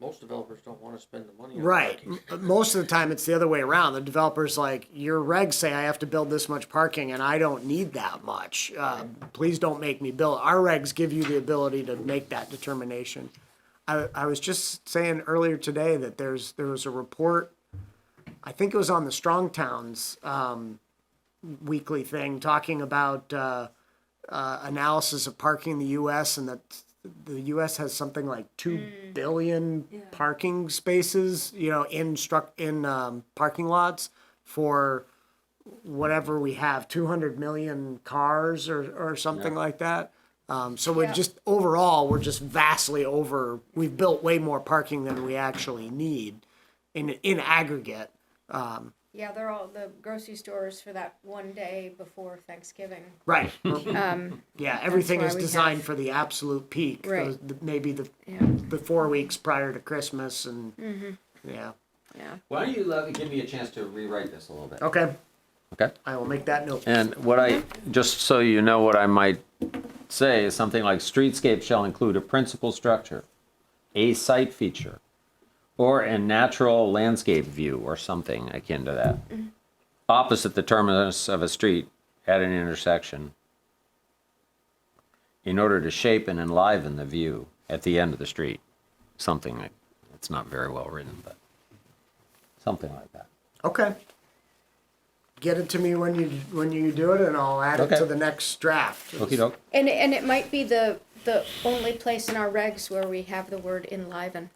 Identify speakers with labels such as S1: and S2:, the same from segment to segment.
S1: most developers don't wanna spend the money. on
S2: Right.
S1: parking.
S2: M- Most of the time, it's the other way around. The developer's like, your regs say I have to build this much parking and I don't need that much. Uh, Please don't make me build. Our regs give you the ability to make that determination. I, I was just saying earlier today that there's, there was a report, I think it was on the Strong Towns, um, weekly thing, talking about, uh, uh, analysis of parking in the U.S. and that the U.S. has something like two billion parking spaces, you know, in struck in um, parking lots for whatever we have, two hundred million cars or or something like that. Um, so we're just overall, we're just vastly over. We've built way more parking than we actually need in in aggregate.
S3: Yeah, they're all the grocery stores for that one day before Thanksgiving.
S2: Right. Um, yeah, everything
S3: Um, why
S2: is
S3: we
S2: designed
S3: have-
S2: for the absolute peak.
S3: Right.
S2: those- the- maybe the
S3: Yeah.
S2: the four weeks prior to Christmas and
S3: Mm-hmm.
S2: yeah.
S3: Yeah.
S4: Why don't you uh, give me a chance to rewrite this a little bit?
S2: Okay,
S4: Okay.
S2: I will make that note.
S4: And what I, just so you know what I might say is something like streetscape shall include a principal structure, a site feature, or a natural landscape view or something akin to that. Opposite the terminus of a street at an intersection in order to shape and enliven the view at the end of the street. Something like, it's not very well written, but something like that.
S2: Okay. Get it to me when you when you do it, and I'll add it
S4: Okay.
S2: to the next draft.
S4: Okey doke.
S3: And and it might be the the only place in our regs where we have the word enliven.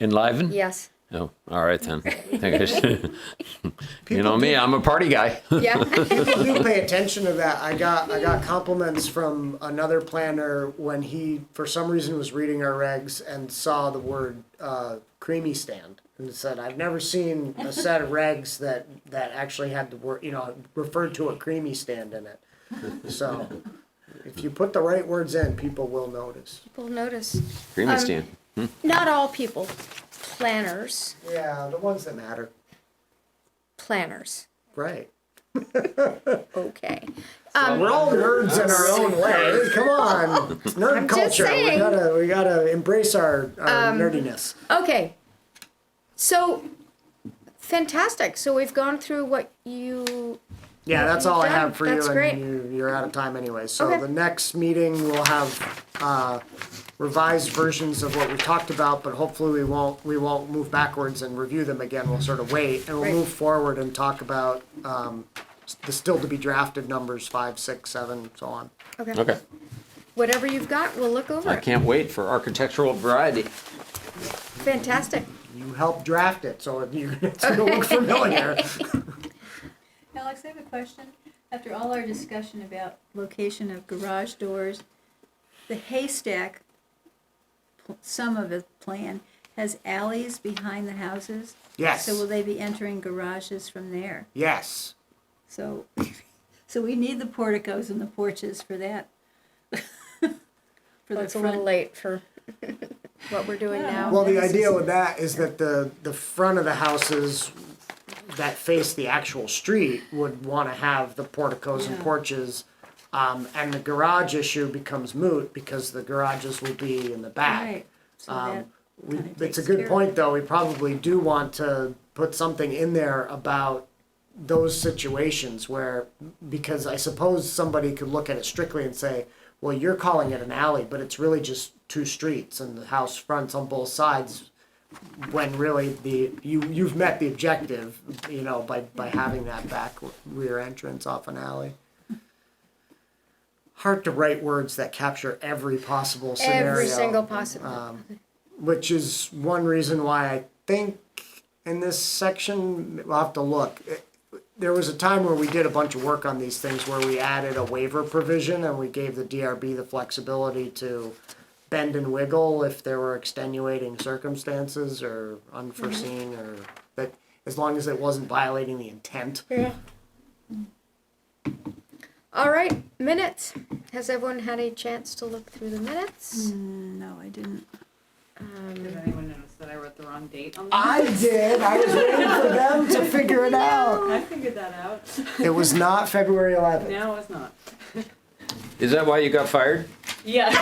S4: Enliven?
S3: Yes.
S4: Oh, all right then. Think I should- you
S2: People
S4: know me, I'm a party guy.
S3: Um, Yeah.
S2: People do pay attention to that. I got I got compliments from another planner when he for some reason was reading our regs and saw the word uh, creamy stand and said, "I've never seen a set of regs that that actually had the word you know referred to a creamy stand in it." So, if you put the right words in, people will notice.
S3: people notice.
S4: Creamy stand.
S3: Not all people. Planners.
S2: Yeah, the ones that matter.
S3: Planners.
S2: Right.
S3: Okay.
S2: We're all nerds in our own way. Come on, it's nerd
S3: I'm
S2: culture.
S3: just saying. Um,
S2: We gotta, we gotta embrace our, our nerdiness.
S3: Okay. So fantastic. So we've gone through what you
S2: Yeah, that's all I
S3: done.
S2: have for you,
S3: That's great.
S2: and you, you're out of time anyway. So
S3: Okay.
S2: the next meeting we'll have uh, revised versions of what we talked about, but hopefully we won't we won't move backwards and review them again. We'll sort of wait and we'll
S3: Right.
S2: move forward and talk about um, s- the still to be drafted numbers five, six, seven, so on.
S3: Okay.
S4: Okay.
S3: Whatever you've got, we'll look over
S4: I
S3: it.
S4: can't wait for architectural variety.
S3: Fantastic.
S2: You helped draft it, so you it's gonna look familiar.
S5: Alex, I have a question. After all our discussion about location of garage doors, the haystack, pl- some of the plan, has alleys behind the houses.
S2: Yes.
S5: So will they be entering garages from there?
S2: Yes.
S5: So, so we need the porticos and the porches for that. For
S3: Well,
S5: the
S3: it's a little
S5: front.
S3: late for what we're doing now.
S2: Well, the
S5: This is-
S2: idea with that is that the, the front of the houses that face the actual street would wanna have the porticos and
S5: Yeah.
S2: porches. Um, and the garage issue becomes moot because the garages will be in the back.
S5: Right. So that
S2: Um, we,
S5: kinda
S2: it's a
S5: takes care
S2: good
S5: of
S2: point, though, we probably do want to put something in there about those situations where, because I suppose somebody could look at it strictly and say, well, you're calling it an alley, but it's really just two streets and the house fronts on both sides. When really the, you, you've met the objective, you know, by, by having that back rear entrance off an alley. Hard to write words that capture every possible scenario
S3: Every single possible.
S2: which is one reason why I think in this section, we'll have to look. There was a time where we did a bunch of work on these things where we added a waiver provision and we gave the DRB the flexibility to bend and wiggle if there were extenuating circumstances or unforeseen or that, as long as it wasn't violating the intent.
S3: Yeah. All right, minutes. Has everyone had a chance to look through the minutes?
S5: No, I didn't.
S6: Did anyone notice that I wrote the wrong date on that?
S2: I did, I was waiting for them to figure it out.
S6: I figured that out.
S2: It was not February eleventh.
S6: No, it's not.
S4: Is that why you got fired?
S6: Yeah.